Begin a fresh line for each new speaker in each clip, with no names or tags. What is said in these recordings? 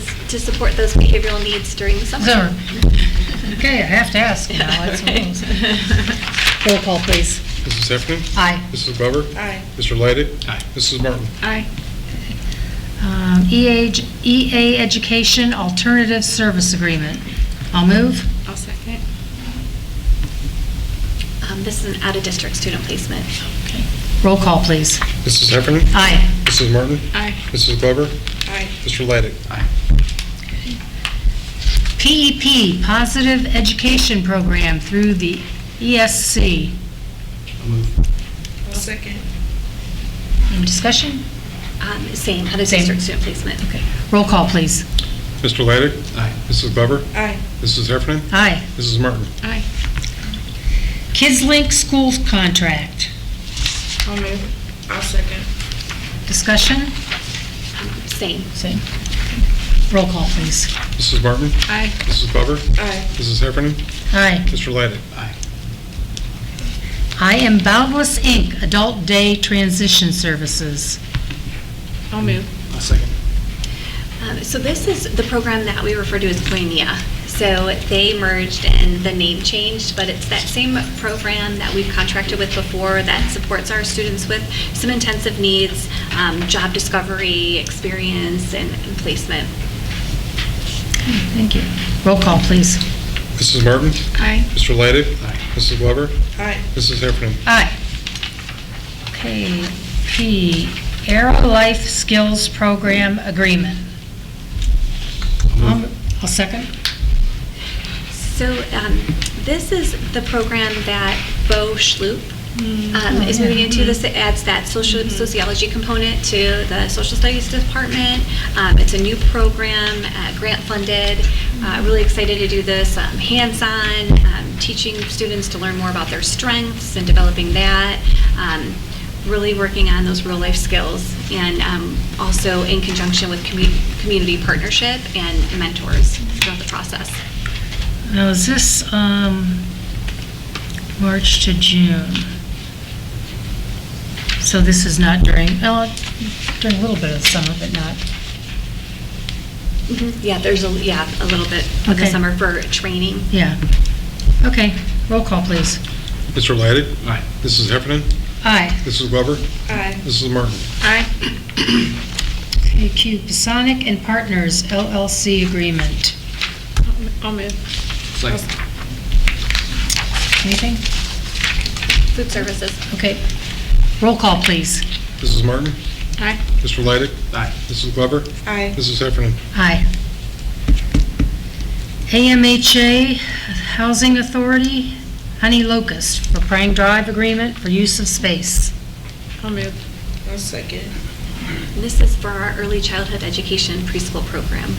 to support those behavioral needs during the summer.
Summer. Okay, I have to ask now, that's what it is. Roll call, please.
Mrs. Heffernan,
Aye.
Mrs. Glover,
Aye.
Mr. Leidig. Aye. Mrs. Martin.
Aye.
Um, EA j- EA E Education Alternative Service Agreement. I'll move.
I'll second. Um, This is an out-of-district student placement.
Roll call, please.
Mrs. Heffernan,
Aye.
Mrs. Martin,
Aye.
Mrs. Glover,
Aye.
Mr. Leidig.
PEP, E Positive Education Program through the E ESC.
I'll second.
Any discussion?
Um, Same, out-of-district student placement.
Okay. Roll call, please.
Mr. Leidig. Aye. Mrs. Glover,
Aye.
Mrs. Heffernan,
Aye.
Mrs. Martin.
Aye.
Kids Link Schools Contract.
I'll move. I'll second.
Discussion?
Um, Same.
Same. Roll call, please.
Mrs. Martin,
Aye.
Mrs. Glover,
Aye.
Mrs. Heffernan,
Aye.
Mr. Leidig. Aye.
I Am Boundless, Inc., Adult Day Transition Services.
I'll move.
I'll second.
Um, So this is the program that we refer to as Koinonia. So they merged and the name changed, but it's that same program that we've contracted with before that supports our students with some intensive needs, um, job discovery, experience, and and placement.
Thank you. Roll call, please.
Mrs. Martin,
Aye.
Mr. Leidig. Aye. Mrs. Glover,
Aye.
Mrs. Heffernan,
Aye. Okay, P, Arrow Life Skills Program Agreement. Um, I'll second.
So um, this is the program that Bo Schloop um, is moving into. This adds that social sociology component to the social studies department. Um, It's a new program, uh, grant-funded. Uh, Really excited to do this, um, hands-on, um, teaching students to learn more about their strengths and developing that. Um, Really working on those real-life skills and um, also in conjunction with commu- community partnership and mentors throughout the process.
Now, is this, um, March to June? So this is not during, well, during a little bit of the summer, but not,
Mhm. Yeah, there's a, yeah, a little bit of the
Mm-hmm. Okay.
summer for training.
yeah. Okay, roll call, please.
Mr. Leidig. Aye. Mrs. Heffernan,
Aye.
Mrs. Glover,
Aye.
Mrs. Martin.
Aye.
Okay, Q, Pisonic and Partners LLC Agreement.
I'll move.
Anything?
Food services.
Okay. Roll call, please.
Mrs. Martin,
Aye.
Mr. Leidig. Aye. Mrs. Glover,
Aye.
Mrs. Heffernan,
Aye. AMHA Housing Authority, Honey Locust for Prang Drive Agreement for use of space.
I'll move. I'll second.
This is for our early childhood education preschool program.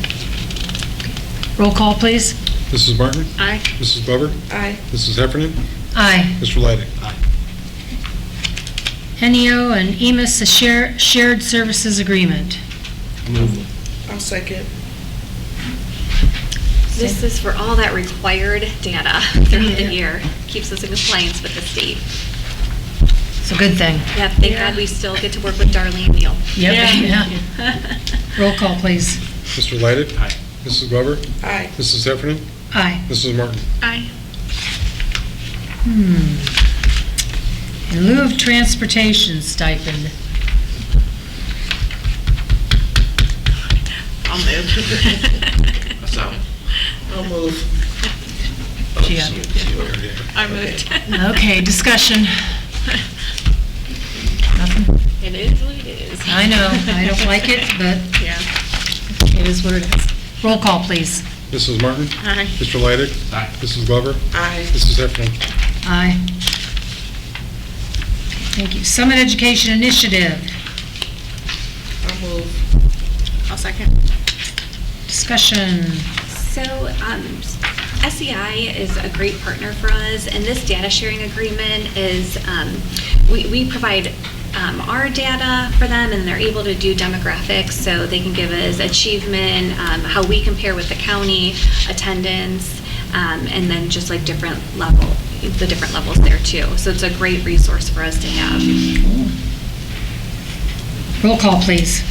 Roll call, please.
Mrs. Martin,
Aye.
Mrs. Glover,
Aye.
Mrs. Heffernan,
Aye.
Mr. Leidig.
NEO E and EMIS a share- Shared Services Agreement.
I'll second.
This is for all that required data throughout the year. Keeps us in compliance with the state.
It's a good thing.
Yeah, thank God we still get to work with Darlene Neal.
Yep. Yeah. Roll call, please.
Mr. Leidig. Aye. Mrs. Glover,
Aye.
Mrs. Heffernan,
Aye.
Mrs. Martin.
Aye.
In lieu of transportation stipend.
I'll move. I'll move.
Gia.
I moved.
Okay, discussion. Nothing?
It is what it is.
I know, I don't like it, but
Yeah.
it is what it is. Roll call, please.
Mrs. Martin,
Aye.
Mr. Leidig. Aye. Mrs. Glover,
Aye.
Mrs. Heffernan,
Aye. Thank you. Summit Education Initiative,
I'll move. I'll second.
discussion.
So um, SEI is a great partner for us, and this data sharing agreement is, um, we we provide um, our data for them, and they're able to do demographics, so they can give us achievement, um, how we compare with the county, attendance, um, and then just like different level, the different levels there too. So it's a great resource for us to have.
Roll call, please.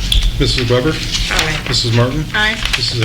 Mrs. Glover,
Aye.
Mrs. Martin,
Aye.
Mrs.